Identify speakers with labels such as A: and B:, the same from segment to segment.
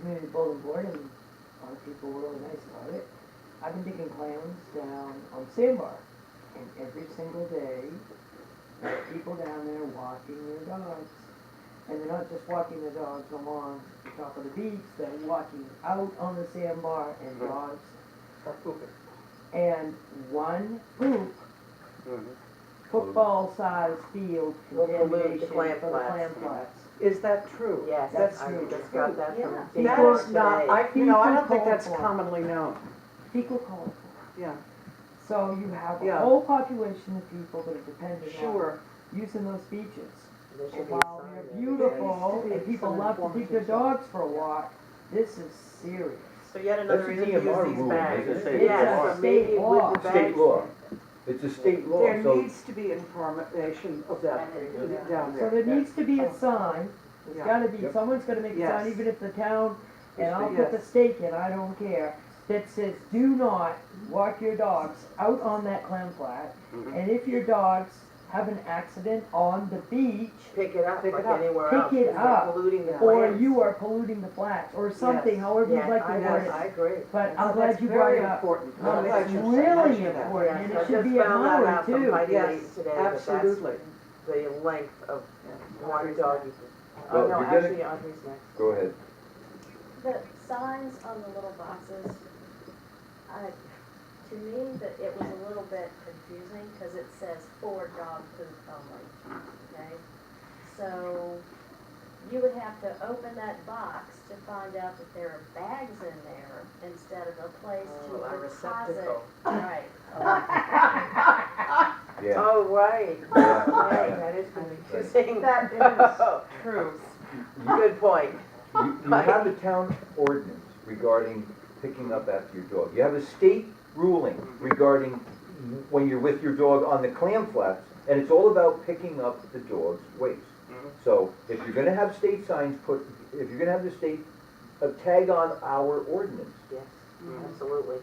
A: community bulletin board and a lot of people were really nice about it. I've been digging clams down on Sandbar and every single day there are people down there walking their dogs. And they're not just walking their dogs along the top of the beach, they're walking out on the sandbar and dogs.
B: Start pooping.
A: And one poop, football-sized field
C: Will pollute the
A: contamination for
C: clam
A: the
C: flats.
A: clam flats.
B: Is that true?
C: Yes,
A: That's
C: I
A: huge.
C: just got that
D: Yeah.
C: from.
A: That
B: That
C: Facebook
B: is not,
C: today.
B: I, you know, I don't think that's
A: People call for it.
B: commonly known.
A: Fecal colic.
B: Yeah,
A: So you have a
B: Yeah.
A: whole population of people that are dependent on
B: sure.
A: using those beaches.
C: There
A: And
C: should be a
A: while
C: sign
A: they're
C: there.
A: beautiful
B: There used to be
A: and people
B: some
A: love to take their
B: informative
A: dogs for a walk, this is serious.
C: So yet another
E: That's a
C: reason to use
E: DMR
C: these
E: rule.
C: bags.
E: It's a state
A: law.
C: Yes, maybe
A: State
C: with
A: law.
C: the
E: State
C: bags.
E: law. It's a state law,
B: There
E: so
B: needs to be information of that
D: Yeah.
B: down
A: So
B: there.
A: there needs to be a sign,
B: Yeah.
A: there's gotta be,
E: Yep.
A: someone's gonna make a sign,
B: Yes.
A: even if the town, and
E: It's
A: I'll
B: the-
A: put the stake in, I don't care, that says, do not walk your dogs out on that clam flat.
E: Mhm.
A: And if your dogs have an accident on the beach,
C: Pick it up
B: Pick it
C: like
B: up.
C: anywhere
A: Pick
C: else.
A: it
C: It's like
A: up.
C: Polluting the
A: Or
C: plants.
A: you are polluting the flats, or something,
B: Yes.
A: however
C: Yeah,
A: you'd like
C: I
A: to
C: know,
A: word
C: I
A: it.
C: agree.
A: But I'm
B: Oh, That's
A: glad you brought
B: very
A: it up.
B: important.
A: No,
B: I'm
A: it's
B: glad you said-
A: really
B: mentioned that.
A: important, and
C: Yes,
A: it
C: I
A: should
C: just
A: be an
C: found that
A: honor
C: out from
A: too.
C: my
B: Yes,
C: lady today, that that's
B: absolutely.
C: the length of
B: Yeah.
C: one doggy.
E: Well,
C: Oh, no,
E: you're getting-
C: actually Audrey's next. Oh,
E: go ahead.
D: The signs on the little boxes, I, to me, that it was a little bit confusing because it says for dog poop only, okay? So you would have to open that box to find out that there are bags in there instead of a place to
C: Oh, a
D: deposit.
C: receptacle.
D: Right.
E: Yeah.
C: Oh, right. Right,
E: Yeah.
C: That is confusing.
F: That is
C: true. Good point.
E: You you have a town ordinance regarding picking up after your dog. You have a state ruling
C: Mm-hmm.
E: regarding when you're with your dog on the clam flats, and it's all about picking up the dog's waste.
C: Mm-hmm.
E: So if you're gonna have state signs put, if you're gonna have the state, uh, tag on our ordinance.
C: Yes, absolutely.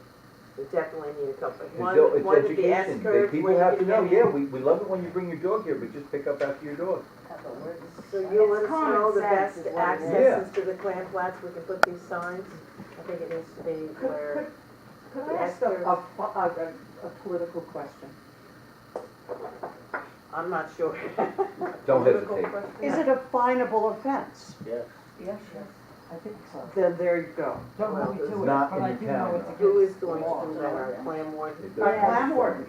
C: We definitely need a couple,
E: It's
C: one,
E: all- it's
C: one at the S
E: education. They-
C: curve, one
E: People
C: at
E: have
C: the
E: to know, yeah, we, we love it when you bring your dog here, but just pick up after your dog.
C: So you'll let us
F: It's common
C: know the
F: sense
C: best
F: is what it
E: is.
C: accesses to the clam flats, we can put these signs. I think it needs to be where,
B: Could I ask a, a, a, a political question?
C: I'm not sure.
E: Don't
C: Political
E: hesitate.
C: question.
B: Is it a finable offense?
A: Yes, yes, I think so.
B: Then there you go.
A: Don't
C: Well,
A: hold me
C: it's
A: to it,
E: not
A: but
E: in
A: I
E: the
A: do
E: town.
A: know it's
C: Who is
A: against the
C: going
A: law.
C: to do that, our clam warden?
E: It
B: Our
E: doesn't-
B: clam warden,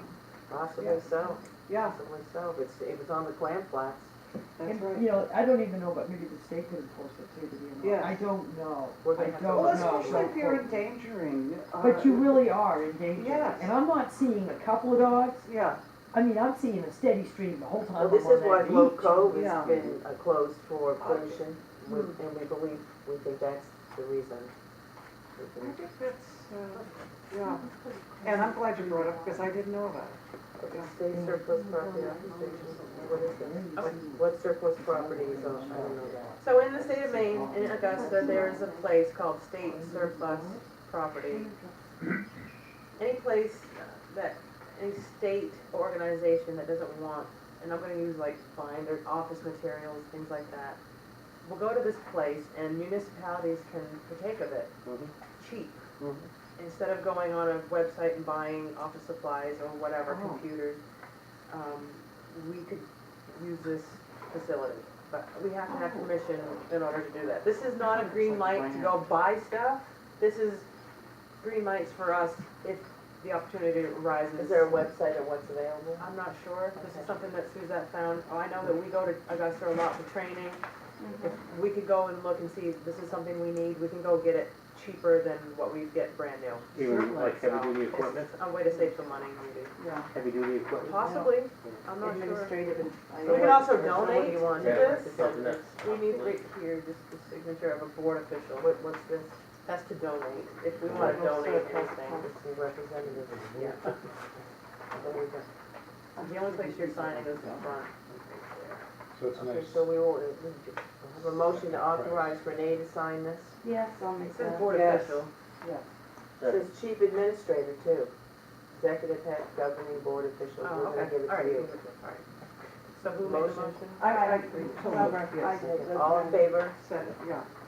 C: Possibly so,
B: yeah,
C: possibly so, it's, it was on the clam flats.
B: that's
A: And,
B: right.
A: You know, I don't even know, but maybe the state could enforce it too, to be honest.
B: Yeah.
A: I don't know,
C: We're
A: I
C: gonna have to
A: don't
B: Well,
C: look
A: know.
B: especially if you're
A: So-
B: endangering. uh,
A: But you really are in danger.
B: Yes.
A: And I'm not seeing a couple of dogs,
B: Yeah,
A: I mean, I'm seeing a steady stream the whole
C: Well,
A: time I'm
C: this is why
A: on
C: Glow
A: that beach.
C: Cove has
B: yeah.
C: been uh, closed for pollution, We- and we believe, we think that's the reason. We
B: I
C: think-
B: think that's, uh, yeah, and I'm glad you brought it up because I didn't know about it.
C: State surplus property, acquisitions, what is it? What- What surplus property is on, I don't know that. So in the state of Maine, in Augusta, there is a place called state surplus property. Any place that, any state organization that doesn't want, and I'm gonna use like fine, their office materials, things like that, will go to this place and municipalities can partake of it,
E: Mhm.
C: cheap
E: Mhm.
C: instead of going on a website and buying office supplies or whatever,
B: Oh.
C: computers, um, we could use this facility. But we have to have permission in order to do that. This is not a green
B: It's like
C: light to go buy stuff. This is green lights for us if the opportunity arises.
F: Is there a website or what's available?
C: I'm not sure. This is something that Suzette found. Oh, I know that we go to Augusta a lot for training. If we could go and look and see if this is something we need, we can go get it cheaper than what we get brand new.
G: Even like heavy
C: So,
G: duty
C: it's
G: equipment,
C: A way to save some money, maybe.
B: Yeah.
G: heavy duty equipment.
C: Possibly, I'm not sure.
F: Administrative and.
C: We can also donate
F: you
C: to
F: want?
C: this.
G: Something that's-
C: We need right here, just the signature of a board official. What, what's this? That's to donate, if we wanna donate anything.
F: It's the representative.
C: Yeah. The only place you're signing is the front.
G: So it's
C: Okay, so we will, we have a motion to authorize Renee to sign this.
F: Yes, I'll
C: It says board
B: Yes.
C: official.
B: Yes.
C: It says chief administrator too. Executive head governing board official.
F: Oh,
C: We're gonna
F: okay.
C: give it
F: All
C: to
F: right.
C: you. So who made the
F: Motion.
C: motion?
B: I, I,
F: Yes.
B: I,
C: All in favor?
B: said, yeah,